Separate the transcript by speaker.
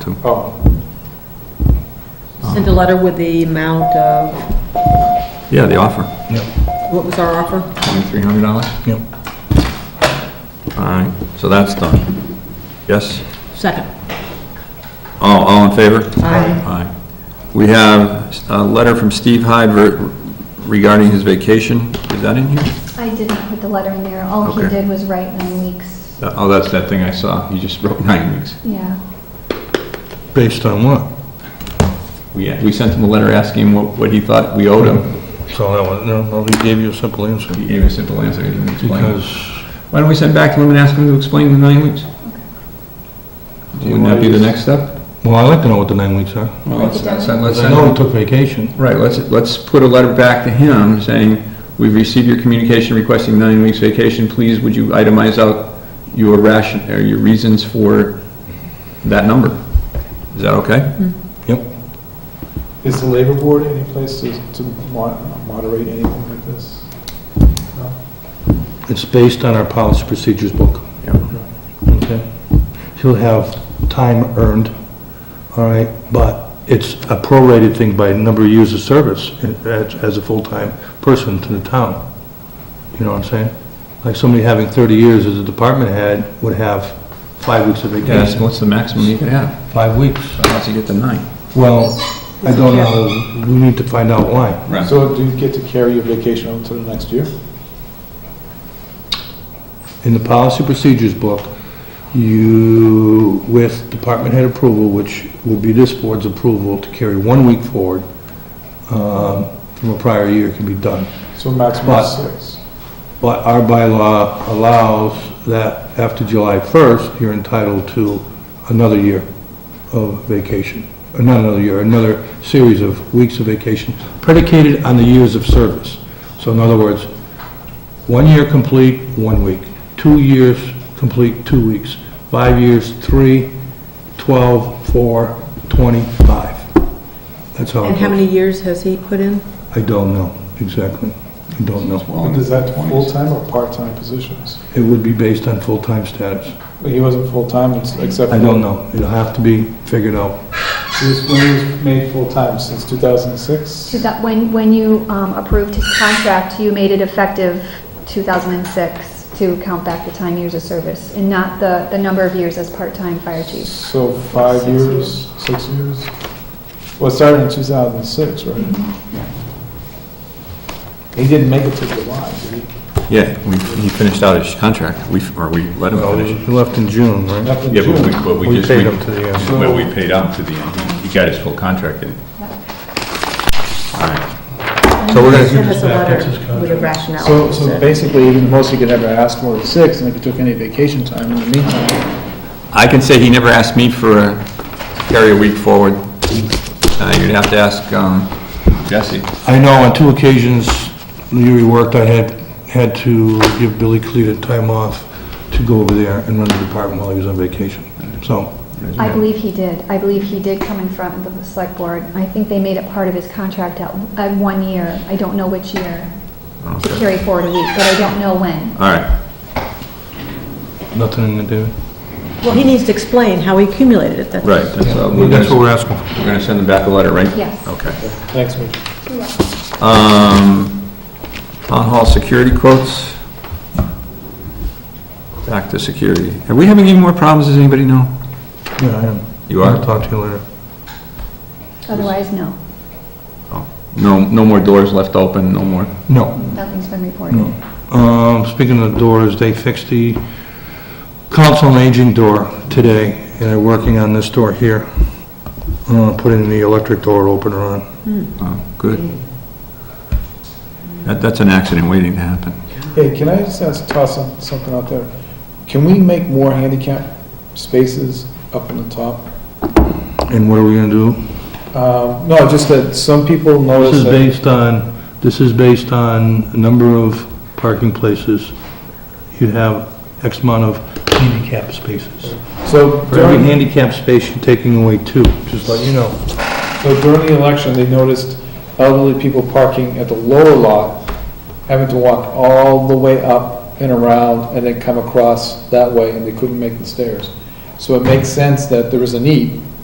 Speaker 1: too.
Speaker 2: Oh,
Speaker 3: Send a letter with the amount of,
Speaker 1: Yeah, the offer,
Speaker 4: Yep,
Speaker 3: what was our offer?
Speaker 1: twenty-three hundred dollars.
Speaker 4: yep.
Speaker 1: All right, so that's done. Yes?
Speaker 3: Second.
Speaker 1: All, all in favor?
Speaker 3: Aye.
Speaker 1: Aye. We have a letter from Steve Hyde ver- regarding his vacation. Is that in here?
Speaker 5: I did not put the letter in there. All he
Speaker 1: Okay.
Speaker 5: did was write nine weeks.
Speaker 1: Uh, Oh, that's that thing I saw. He just wrote nine weeks.
Speaker 5: Yeah.
Speaker 4: Based on what?
Speaker 1: We, we sent him a letter asking him what, what he thought we owed him.
Speaker 4: So that was, no, no, he gave you a simple answer.
Speaker 1: He gave a simple answer, he didn't explain.
Speaker 4: Because
Speaker 1: Why don't we send back to him and ask him to explain the nine weeks? Wouldn't that be the next step?
Speaker 4: Well, I'd like to know what the nine weeks are.
Speaker 1: Well, let's, let's send, let's
Speaker 4: I
Speaker 1: send
Speaker 4: know
Speaker 1: him-
Speaker 4: he took vacation.
Speaker 1: Right, let's, let's put a letter back to him saying, we've received your communication requesting nine weeks vacation, please would you itemize out your ration, or your reasons for that number? Is that okay?
Speaker 4: Yep.
Speaker 2: is the labor board any place to, to mo- moderate anything like this? No?
Speaker 4: It's based on our policy procedures book.
Speaker 1: Yeah.
Speaker 4: Okay. He'll have time earned, all right, but it's a prorated thing by number of years of service in- as, as a full-time person to the town. You know what I'm saying? Like somebody having 30 years as a department head would have five weeks of
Speaker 1: Yeah, that's-
Speaker 4: vacation.
Speaker 1: what's the maximum you could have?
Speaker 4: Five weeks.
Speaker 1: Unless you get to nine.
Speaker 4: Well, I don't know, we need to find out why.
Speaker 1: Right.
Speaker 2: So do you get to carry your vacation until the next year?
Speaker 4: In the policy procedures book, you, with department head approval, which will be this board's approval to carry one week forward um, from a prior year can be done.
Speaker 2: So maximum
Speaker 4: But-
Speaker 2: is six.
Speaker 4: But our bylaw allows that after July 1st, you're entitled to another year of vacation, or not another year, another series of weeks of vacation predicated on the years of service. So in other words, one year complete, one week. Two years complete, two weeks. Five years, three, 12, four, 25. That's how it
Speaker 3: And how
Speaker 4: goes.
Speaker 3: many years has he put in?
Speaker 4: I don't know, exactly. I don't know.
Speaker 2: And is that full-time or part-time positions?
Speaker 4: It would be based on full-time status.
Speaker 2: He wasn't full-time it's- except.
Speaker 4: I
Speaker 2: for-
Speaker 4: don't know. It'll have to be figured out.
Speaker 2: He was, when he was made full-time, since 2006?
Speaker 5: Two thou- When, when you um, approved his contract, you made it effective 2006 to count back the time years of service and not the, the number of years as part-time fire chief.
Speaker 2: So five
Speaker 5: Six
Speaker 2: years,
Speaker 5: years.
Speaker 2: six years? Well, it started in 2006, right? He didn't make it to July, did he?
Speaker 1: Yeah, we, he finished out his contract, we, or we let him
Speaker 4: Well,
Speaker 1: finish.
Speaker 4: He left in June, right?
Speaker 2: Nothing
Speaker 1: Yeah, but we,
Speaker 2: June.
Speaker 1: but we
Speaker 4: We
Speaker 1: just.
Speaker 4: paid him to the end.
Speaker 1: Well, we paid him to the end. He- He got his full contract in. All right. So we're gonna-
Speaker 3: Send us a
Speaker 4: That's his
Speaker 3: letter
Speaker 4: contract.
Speaker 3: with a rationale.
Speaker 2: So, so basically, even the most he could ever ask for is six, and if he took any vacation time in the meantime,
Speaker 1: I can say he never asked me for a, carry a week forward. Uh, you'd have to ask, um, Jesse.
Speaker 4: I know on two occasions, the year he worked, I had, had to give Billy Cleta time off to go over there and run the department while he was on vacation. So,
Speaker 5: I believe he did. I believe he did come in front of the select board. I think they made it part of his contract at, at one year. I don't know which year, to
Speaker 1: Okay. Uh,
Speaker 5: carry forward a week, but I don't know when.
Speaker 1: All right,
Speaker 4: nothing in the do.
Speaker 3: Well, he needs to explain how he accumulated it. That's-
Speaker 1: right, that's, uh, we're
Speaker 4: That's what
Speaker 1: gonna,
Speaker 4: we're asking for.
Speaker 1: we're gonna send him back a letter, right?
Speaker 5: Yes.
Speaker 1: Okay.
Speaker 2: thanks, Mitch.
Speaker 1: Um, town hall security quotes. Back to security. Are we having any more problems, does anybody know?
Speaker 4: Yeah, I am.
Speaker 1: You are?
Speaker 4: I'll talk to you later.
Speaker 5: Otherwise, no.
Speaker 1: No, no more doors left open, no more.
Speaker 4: No.
Speaker 5: Nothing's been reported.
Speaker 4: Um, speaking of doors, they fixed the council and aging door today, and they're working on this door here. Uh, putting the electric door opener on.
Speaker 1: Oh, good. That, that's an accident waiting to happen.
Speaker 2: Hey, can I just ask, toss some- something out there? Can we make more handicap spaces up in the top?
Speaker 4: And what are we gonna do?
Speaker 2: Um, No, just that some people
Speaker 4: This
Speaker 2: notice
Speaker 4: is
Speaker 2: that,
Speaker 4: based on, this is based on a number of parking places. You have X amount of handicap spaces.
Speaker 2: so
Speaker 4: For every
Speaker 2: during,
Speaker 4: handicap space, you're taking away two, just let you know.
Speaker 2: so during the election, they noticed elderly people parking at the lower lot, having to walk all the way up and around and then come across that way, and they couldn't make the stairs. So it makes sense that there is a need